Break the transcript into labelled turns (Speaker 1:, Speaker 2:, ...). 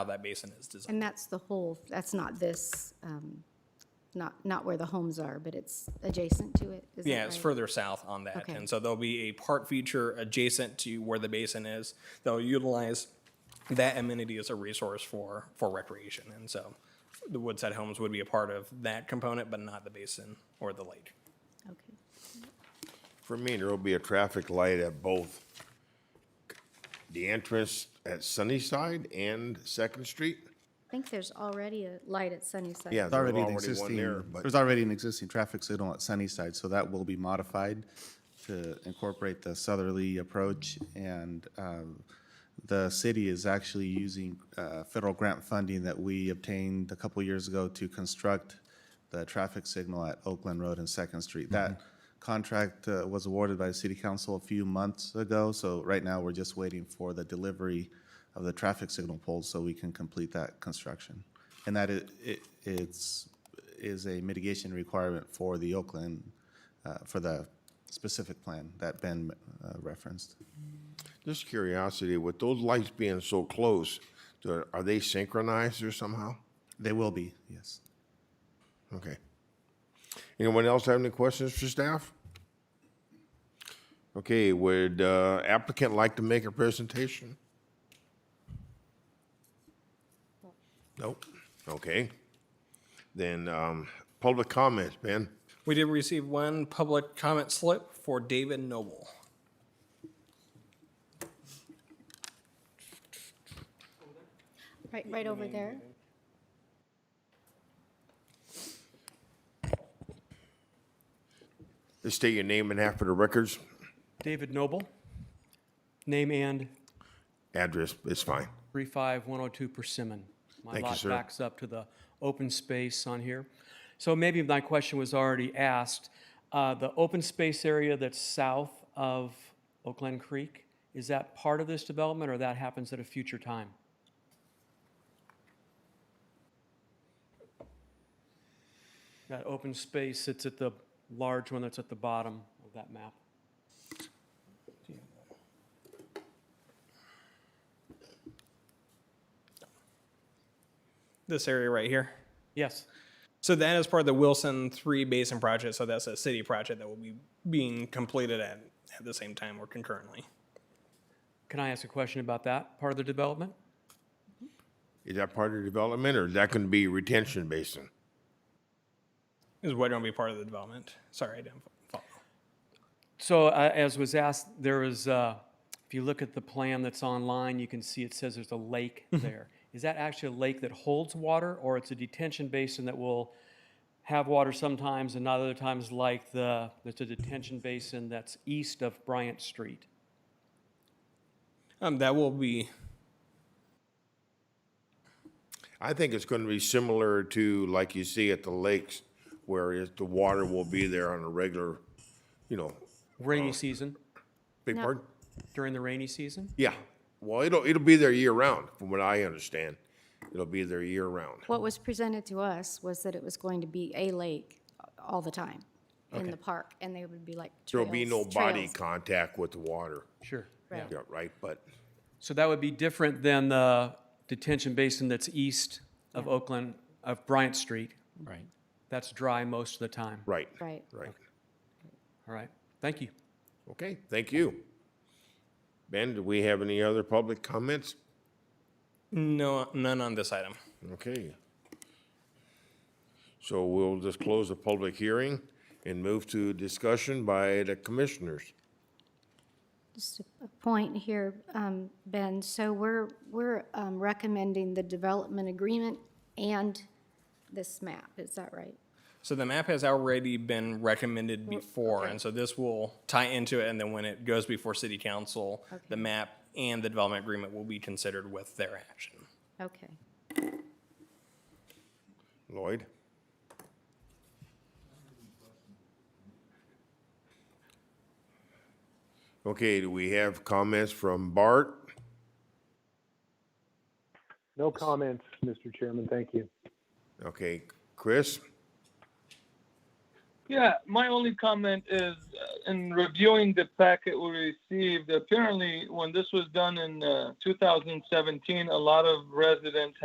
Speaker 1: how that basin is designed.
Speaker 2: And that's the whole, that's not this, um, not, not where the homes are, but it's adjacent to it, is that
Speaker 1: Yeah, it's
Speaker 2: right?
Speaker 1: further south on that.
Speaker 2: Okay.
Speaker 1: And so there'll be a park feature adjacent to where the basin is. They'll utilize that amenity as a resource for, for recreation. And so the Woodside Homes would be a part of that component, but not the basin or the lake.
Speaker 2: Okay.
Speaker 3: For me, there'll be a traffic light at both the entrance at Sunnyside and Second Street.
Speaker 2: I think there's already a light at Sunnyside.
Speaker 3: Yeah,
Speaker 4: There's
Speaker 3: there's
Speaker 4: already an
Speaker 3: already one
Speaker 4: existing,
Speaker 3: there, but
Speaker 4: there's already an existing traffic signal at Sunnyside, so that will be modified to incorporate the southerly approach. And um, the city is actually using uh, federal grant funding that we obtained a couple years ago to construct the traffic signal at Oakland Road and Second Street. That contract uh, was awarded by the city council a few months ago, so right now we're just waiting for the delivery of the traffic signal poles so we can complete that construction. And that it, it, it's, is a mitigation requirement for the Oakland, uh, for the specific plan that Ben uh, referenced.
Speaker 3: just curiosity, with those lights being so close, do- are they synchronized or somehow?
Speaker 4: They will be, yes.
Speaker 3: Okay. Anyone else have any questions for staff? Okay, would uh, applicant like to make a presentation? Nope. Okay. Then um, public comments, Ben.
Speaker 1: We did receive one public comment slip for David Noble.
Speaker 2: Right, right over there.
Speaker 3: Just state your name and half of the records.
Speaker 5: David Noble, name and
Speaker 3: Address It's fine.
Speaker 5: 35102 Persimmon. My
Speaker 3: Thank you,
Speaker 5: lot
Speaker 3: sir.
Speaker 5: backs up to the open space on here. So maybe my question was already asked. Uh, The open space area that's south of Oakland Creek, is that part of this development or that happens at a future time? That open space, it's at the large one that's at the bottom of that map.
Speaker 1: This area right here.
Speaker 5: Yes,
Speaker 1: So that is part of the Wilson Three Basin Project. So that's a city project that will be being completed at, at the same time or concurrently.
Speaker 5: can I ask a question about that part of the development?
Speaker 3: Is that part of the development or is that going to be retention basin?
Speaker 1: Is what going to be part of the development? Sorry, I didn't follow.
Speaker 5: So uh, as was asked, there is, uh, if you look at the plan that's online, you can see it says there's a lake there. Is that actually a lake that holds water, or it's a detention basin that will have water sometimes and not other times like the, there's a detention basin that's east of Bryant Street?
Speaker 1: Um, that will be
Speaker 3: I think it's going to be similar to like you see at the lakes where it- the water will be there on a regular, you know,
Speaker 5: Rainy season,
Speaker 3: big pardon?
Speaker 5: during the rainy season?
Speaker 3: Yeah. Well, it'll, it'll be there year round from what I understand. It'll be there year round.
Speaker 2: What was presented to us was that it was going to be a lake all the time in the park, and they would be like
Speaker 3: There'll be no
Speaker 2: trails,
Speaker 3: body
Speaker 2: trails.
Speaker 3: contact with the water.
Speaker 5: Sure.
Speaker 2: Right.
Speaker 3: Yeah, right, but
Speaker 5: So that would be different than the detention basin that's east of Oakland, of Bryant Street. Right. That's dry most of the time.
Speaker 3: right,
Speaker 2: Right.
Speaker 3: right.
Speaker 5: All right, thank you.
Speaker 3: Okay, thank you. Ben, do we have any other public comments?
Speaker 1: no none on this item.
Speaker 3: Okay. So we'll just close the public hearing and move to discussion by the commissioners.
Speaker 2: Just a a point here, um, Ben, so we're, we're um, recommending the development agreement and this map, is that right?
Speaker 1: So the map has already been recommended before, and so this will tie into it. And then when it goes before City Council, the map and the development agreement will be considered with their action.
Speaker 2: Okay.
Speaker 3: Lloyd? Okay, do we have comments from Bart?
Speaker 6: No comments, Mr. Chairman. Thank you.
Speaker 3: Okay, Chris?
Speaker 7: Yeah, my only comment is uh, in reviewing the packet we received, apparently when this was done in uh, 2017, a lot of residents